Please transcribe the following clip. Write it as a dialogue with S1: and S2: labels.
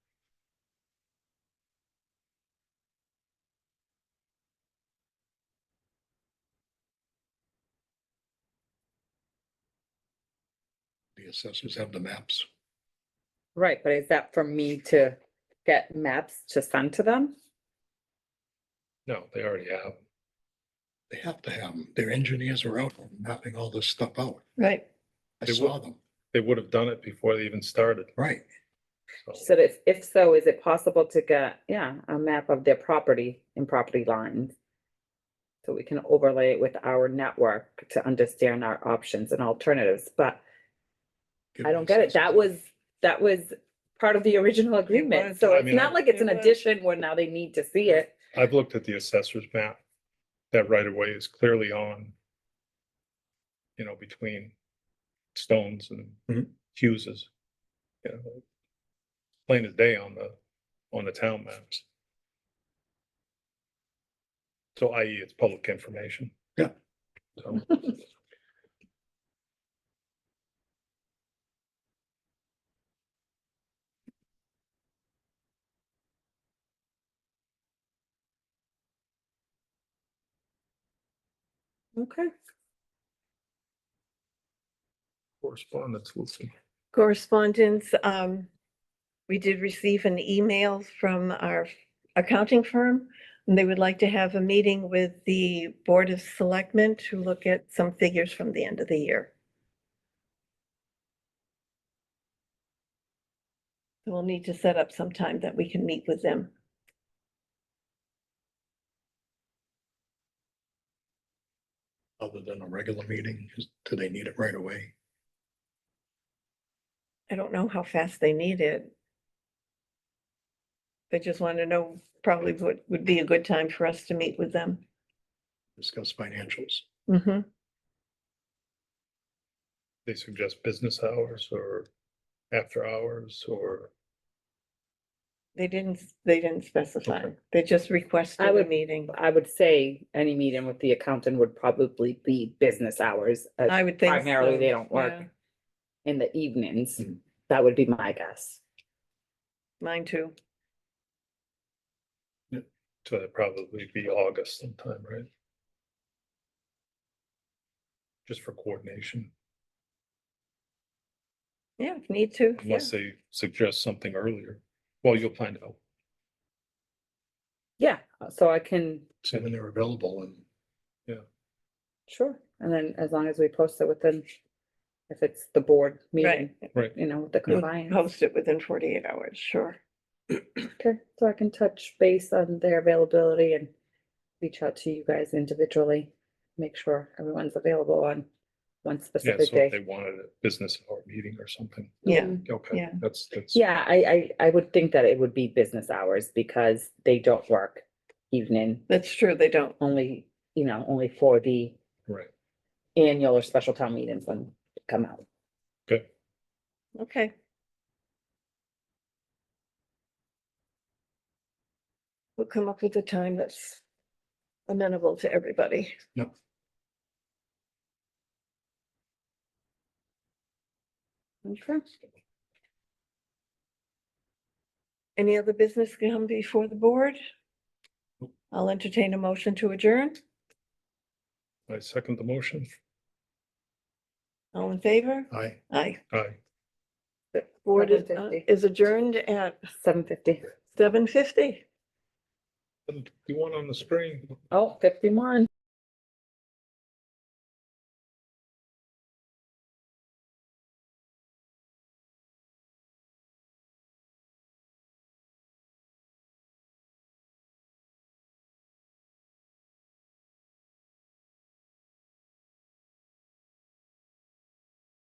S1: The assessors have the maps.
S2: Right, but is that for me to get maps to send to them?
S3: No, they already have.
S1: They have to have them. Their engineers are out mapping all this stuff out.
S4: Right.
S1: I
S3: They
S1: saw
S3: will.
S1: them,
S3: They would have done it before they even started.
S1: right.
S3: so.
S2: So if, if so, is it possible to get, yeah, a map of their property and property lines? So we can overlay it with our network to understand our options and alternatives, but
S1: Give
S2: I
S1: the
S2: don't get it. That
S1: assessors-
S2: was, that was part of the original agreement.
S4: was.
S2: So
S3: I
S2: it's
S3: mean,
S2: not
S3: I-
S2: like it's an
S4: It was.
S2: addition where now they need to see it.
S3: I've looked at the assessor's map. That right of way is clearly on. You know, between Stones and
S1: Mhm.
S3: Hughes's. You know. Plain as day on the, on the town maps. So i.e. it's public information.
S1: Yeah.
S3: So,
S2: Okay.
S3: Correspondence, Lucy.
S4: Correspondence, um, we did receive an email from our accounting firm. And they would like to have a meeting with the Board of Selectmen to look at some figures from the end of the year. So We'll need to set up some time that we can meet with them.
S1: Other than a regular meeting, is- do they need it right away?
S4: I don't know how fast they need it. They just want to know probably what would be a good time for us to meet with them.
S1: Discuss financials.
S4: Mm-hmm.
S3: They suggest business hours or after hours or.
S4: They didn't, s- they didn't specify.
S3: Okay.
S4: They just requested a
S2: would-
S4: meeting.
S2: I would say any meeting with the accountant would probably be business hours. uh, as
S4: I would think.
S2: Primarily,
S4: so,
S2: they don't work
S4: yeah.
S2: in the evenings.
S3: Mm-hmm.
S1: Mm.
S2: That would be my guess.
S4: Mine too.
S3: So that'd probably be August sometime, right? Just for coordination,
S4: Yeah, if need to. yeah.
S3: unless they suggest something earlier. Well, you'll find out,
S2: Yeah, so I can,
S1: See when they're available and
S2: sure, and then as long as we post it within, if it's the board meeting,
S4: Right.
S3: right?
S2: you know, the
S4: We'll
S2: compliance.
S4: Post it within forty-eight hours, sure.
S2: Okay, so I can touch base on their availability and reach out to you guys individually, make sure everyone's available on one
S3: Yeah,
S2: specific
S3: so if they
S2: day.
S3: wanted a business hour meeting or something.
S4: Yeah.
S2: Mhm.
S3: Okay,
S4: Yeah.
S3: that's, that's.
S2: Yeah, I, I, I would think that it would be business hours because they don't work evening,
S4: That's true. They don't.
S2: only, you know, only for the
S3: Right,
S2: annual or special town meetings when they come out.
S3: good.
S4: Okay. We'll come up with a time that's amenable to everybody.
S1: Yep.
S4: Okay. Any other business come before the board? I'll entertain a motion to adjourn.
S3: I second the motion.
S4: All in favor?
S1: I,
S4: Aye.
S3: Aye.
S4: Board is uh,
S2: 7:50.
S4: is adjourned at
S2: Seven fifty.
S4: seven fifty.
S3: You want on the screen?
S2: Oh, fifty-one.